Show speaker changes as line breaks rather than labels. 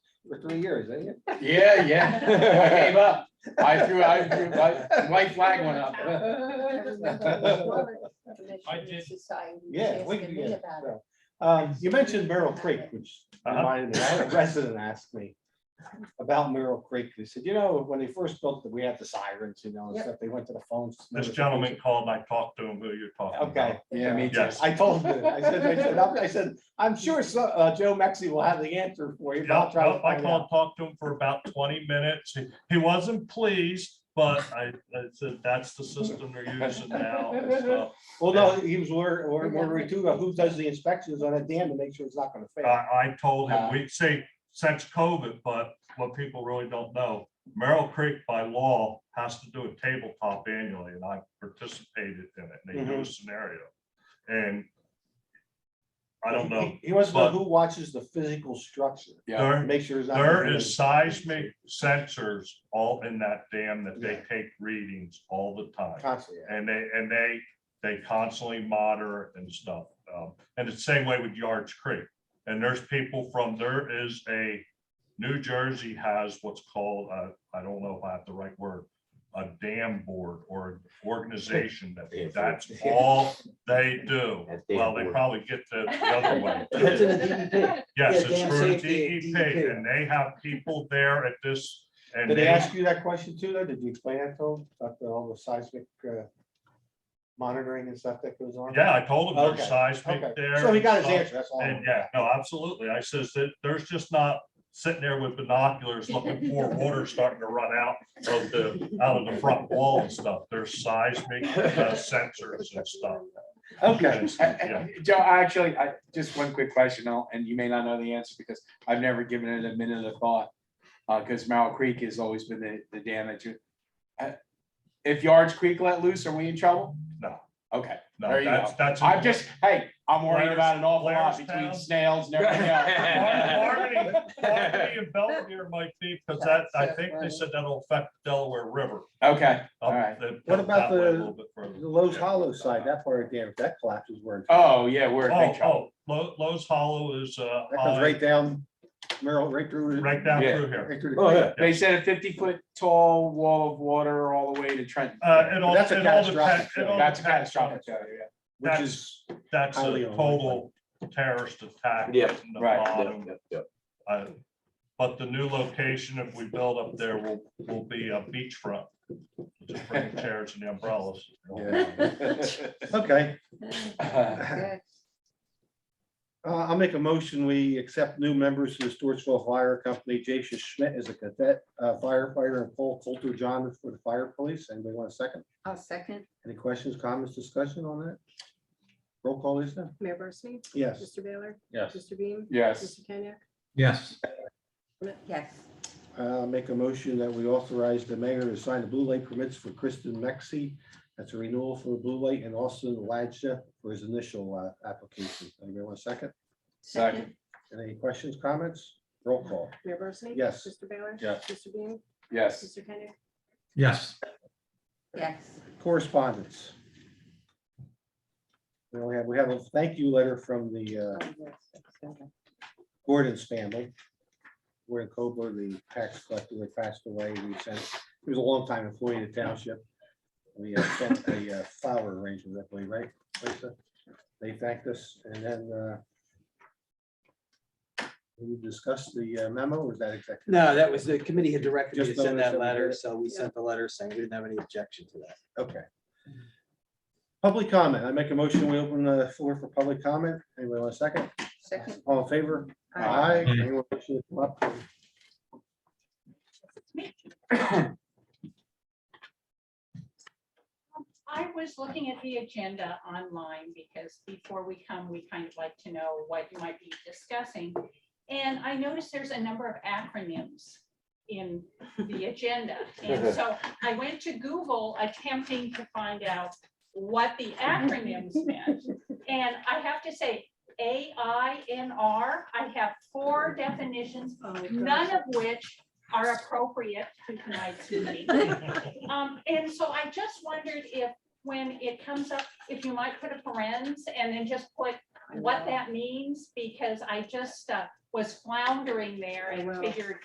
for three years, ain't it?
Yeah, yeah. I gave up. I threw, I threw, my white flag went up.
I did.
Yeah, we can get it. so. Um, you mentioned Merrill Creek, which
Uh-huh.
reminded me, I had a resident asked me about Merrill Creek. They said, you know, when they first built it, we had the sirens, you know, and
Yep.
stuff. They went to the phones.
This gentleman called, I talked to him, who you're talking
Okay.
about.
Yeah, me too.
Yes.
I told him, I said, I said, I'm- I said, I'm sure so- uh, Joe Mexi will have the answer for you. but I'll
Yep,
try to
yep, I
find out."
called, talked to him for about twenty minutes. He- He wasn't pleased, but I, I said, that's the system they're using now. So
Well, no, he was where, where,
Yeah.
where we do, uh, who does the inspections on a dam to make sure it's not gonna
I,
fail?
I told him,
Uh.
we say since COVID, but what people really don't know, Merrill Creek by law has to do a tabletop annually and I participated in it. They do a
Mhm.
scenario. And I don't know,
He- He wants to know
but-
who watches the physical structure,
Yeah,
there,
make sure it's not.
There is seismic sensors all in that dam that they
Yeah.
take readings all the time.
Constantly, yeah.
And they, and they, they constantly monitor and stuff. Um, And it's same way with Yards Creek. And there's people from, there is a, New Jersey has what's called, uh, I don't know if I have the right word, a dam board or an organization
Yeah.
that, that's all they do.
That's dam
Well, they
board.
probably get the the other way. too.
That's in the
E
DEP.
Yes,
Yeah,
it's
dam
through the
safety E and
DEP,
DEP.
E and they have people there at this, and
Did they
they,
ask you that question too, though? Did you explain that to them, about the- all the seismic, uh, monitoring and stuff that goes on?
yeah, I told them
Okay,
there's seismic
Okay,
there.
so he
and
got his
stuff,
answer, that's all.
And yeah, no, absolutely. I says that there's just not sitting there with binoculars looking for water starting to run out of the, out of the front wall and stuff. There's seismic uh, sensors and stuff.
Okay,
And stuff, yeah.
Uh, Joe, actually, I, just one quick question, I'll- and you may not know the answer because I've never given it a minute of thought. Uh, because Merrill Creek has always been the, the dam that you. uh, If Yards Creek let loose, are we in trouble?
No.
Okay,
No,
There you
that's, that's.
I'm just, hey, I'm worried
Blair's-
about an awful lot between
Blairstown.
snails and everything else.
Harmony Harmony and Belvedere might be, because that, I think they said that'll affect Delaware River.
Okay,
up
All right.
the-
What
up
about
that way a
the-
little bit further.
The Lowe's
Yeah.
Hollow side, that part of the dam, if that collapses, we're in. trouble.
oh, yeah, we're in
Oh,
big trouble.
oh, Lo- Lowe's Hollow is, uh,
That comes right down, Merrill, right through. the-
right down
Yeah.
through here.
Right through
Oh,
the.
yeah.
They said a fifty foot tall wall of water all the way to Trenton.
Uh, it all,
That's a
it all
catastrophic
depends, it all
That's a
depends on-
catastrophic failure, yeah.
Which is,
That's a
highly
total terrorist attack.
Yeah,
right in the
right,
bottom.
Yep, yep.
Uh, But the new location, if we build up there, will, will be a beachfront. Just bring the chairs and the umbrellas.
okay,
Uh,
uh, I'll make a motion, we accept new members to the Stuartsville Fire Company, Jason Schmidt is a cadet uh, firefighter, and Paul Coulter John for the fire police, anybody want a second?
I'll second.
Any questions, comments, discussion on that? Roll call, Lisa?
Mayor Barsney?
Yes.
Mr. Baylor?
Yes.
Mr. Beam?
Yes,
Mr. Kenyek?
Yes,
Yes,
Uh, make a motion that we authorize the mayor to sign the blue light permits for Kristen Mexi. That's a renewal for blue light and Austin Ladja for his initial uh, application. Anybody want a second?
second,
Any questions, comments? Roll call.
Mayor Barsney?
Yes.
Mr. Baylor?
Yes.
Mr. Beam?
yes.
Mr. Kenyek?
yes.
yes.
Correspondence. We only have, we have a thank you letter from the uh, Gordon's family. Gordon Cobler, the tax collector that passed away, we sent, he was a longtime employee of the township. We uh, sent a uh, flower arrangement, I believe, right? Lisa? They thanked us and then uh, we discussed the uh, memo, or was that exactly?
No, that was the committee had directed me to
Just
send
notice that
that
we
letter,
did it.
so we sent the letter saying we didn't have any objection to that.
Okay. Public comment. I make a motion, we open the floor for public comment. Anybody want a second?
Second,
All in favor?
Aye.
Anyone wishing to come up?
I was looking at the agenda online because before we come, we kind of like to know what you might be discussing. And I noticed there's a number of acronyms in the agenda. And so I went to Google attempting to find out what the acronyms meant. And I have to say, AINR, I have four definitions, none of which are appropriate to tonight's meeting. Um, and so I just wondered if, when it comes up, if you might put a parens and then just put what that means, because I just, uh, was floundering there
Oh,
and
wow.
figured